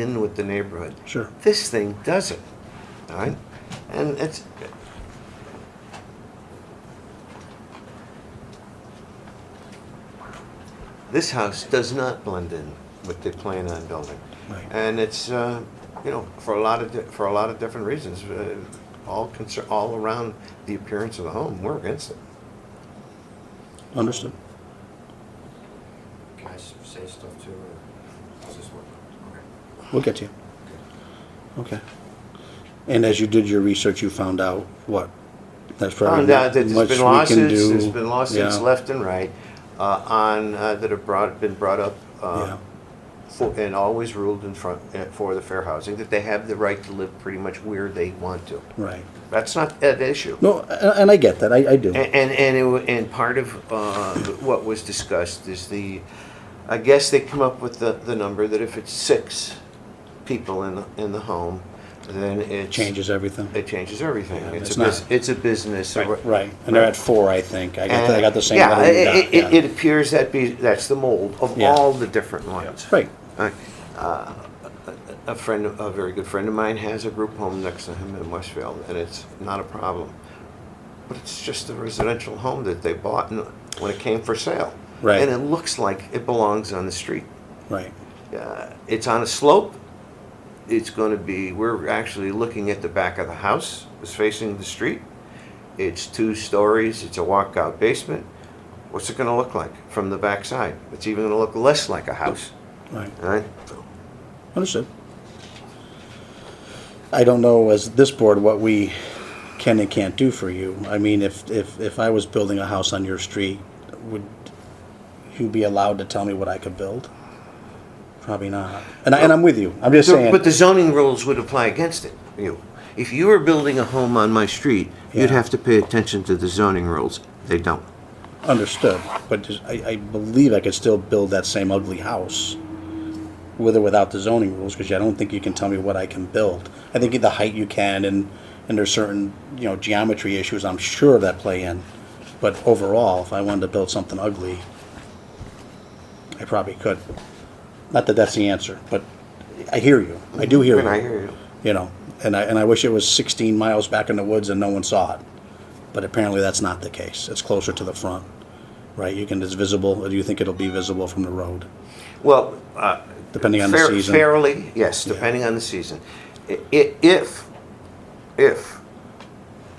in with the neighborhood. Sure. This thing doesn't, all right? And it's, this house does not blend in with the plan on building. Right. And it's, uh, you know, for a lot of, di- for a lot of different reasons, uh, all concern, all around the appearance of the home, we're against it. Understood. Can I s- say stuff too, or does this work? Okay. We'll get to you. Okay. And as you did your research, you found out what? That's probably Found out not that Oh, there's much we been can lawsuits, do. there's been lawsuits Yeah, left and right, uh, on, uh, that have brought, been brought up, uh, Yeah, for- and always ruled in front, uh, for the fair housing, that they have the right to live pretty much where they want to. right. That's not an issue. No, a- and I get that, I, I do. A- And, and, it wa- and part of uh, what was discussed is the, I guess they come up with the, the number that if it's six people in, the in the home, then it's. Changes everything. It changes everything. Yeah, It's it's a, bus- not- it's a business. a re- Right, and they're at four, I think. I got, I got the same. Yeah, letter you got, it, it, yeah. it appears that be, that's the mold of Yeah. all the different ones. Right, Uh, a friend, a very good friend of mine has a group home next to him in Westfield, and it's not a problem. But it's just a residential home that they bought and- when it came for sale. Right. And it looks like it belongs on the street. right, Uh, It's on a slope. It's going to be, we're actually looking at the back of the house, it's facing the street. It's two stories, it's a walkout basement. What's it going to look like from the backside? It's even going to look less like a house, right. all right? So- Understood. I don't know as this board what we can and can't do for you. I mean, if, if, if I was building a house on your street, would you be allowed to tell me what I could build? Probably not. And I, and I'm with you. I'm just So- saying. But the zoning rules would apply against it, you. If you were building a home on my street, you'd Yeah. have to pay attention to the zoning rules. They don't. Understood, but just- I, I believe I could still build that same ugly house with or without the zoning rules, because I don't think you can tell me what I can build. I think the height you can, and, and there's certain, you know, geometry issues I'm sure that play in. But overall, if I wanted to build something ugly, I probably could. Not that that's the answer, but I hear you, I do hear you. And I hear you. You know, and I, and I wish it was sixteen miles back in the woods and no one saw it. But apparently that's not the case. It's closer to the front, right? You can, it's visible, or do you think it'll be visible from the road? Well, uh. Depending on the fair- season. Fairly, yes, depending on the season. I- i- if, if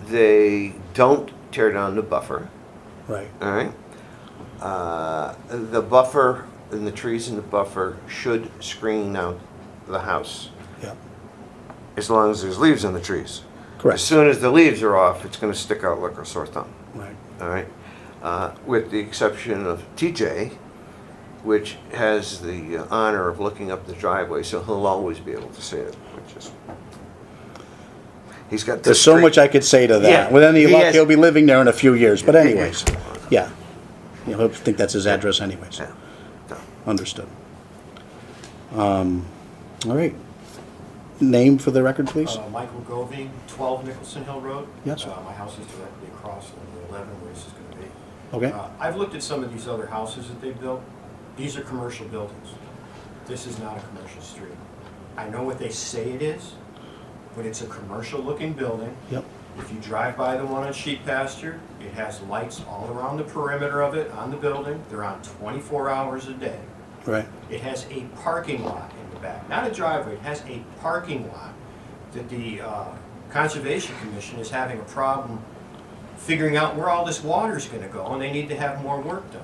they don't tear down the buffer, Right, all right? Uh, the buffer and the trees in the buffer should screen out the house. yeah, as long as there's leaves on the trees. As correct, soon as the leaves are off, it's gonna stick out like a sore thumb, right, all right? Uh, With the exception of TJ, which has the uh, honor of looking up the driveway, so he'll always be able to see it, which is, he's got. There's so much I could say to Yeah, that. With any he luck, has- he'll be living there in a few years, but anyways, yeah. You know, he'll think that's his address anyways. Understood. Um, all right. Name for the record, please? Uh, Michael Goving, 12 Nicholson Hill Road. Yes. Uh, My house is directly across from the 11 where this is going to be. Okay, Uh, I've looked at some of these other houses that they built. These are commercial buildings. This is not a commercial street. I know what they say it is, but it's a commercial-looking building. yep, If you drive by the one on Sheep Pasture, it has lights all around the perimeter of it, on the building. They're on 24 hours a day. right, It has a parking lot in the back, not a driveway, it has a parking lot that the uh, Conservation Commission is having a problem figuring out where all this water's gonna go, and they need to have more work done.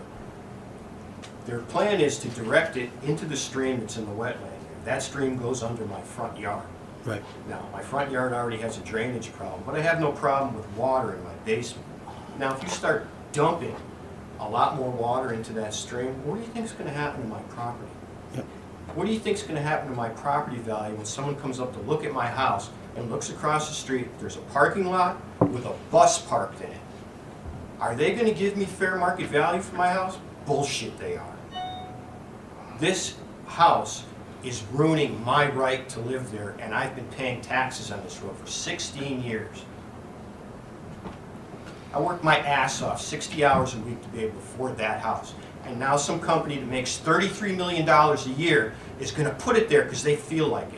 Their plan is to direct it into the stream that's in the wetland. That stream goes under my front yard. right, Now, my front yard already has a drainage problem, but I have no problem with water in my basement. Now, if you start dumping a lot more water into that stream, what do you think's gonna happen to my property? yep, What do you think's gonna happen to my property value when someone comes up to look at my house and looks across the street, there's a parking lot with a bus parked in it? Are they gonna give me fair market value for my house? Bullshit they are. This house is ruining my right to live there, and I've been paying taxes on this road for sixteen years. I worked my ass off, sixty hours a week to be able to afford that house. and now some company that makes thirty-three million dollars a year is gonna put it there because they feel like it.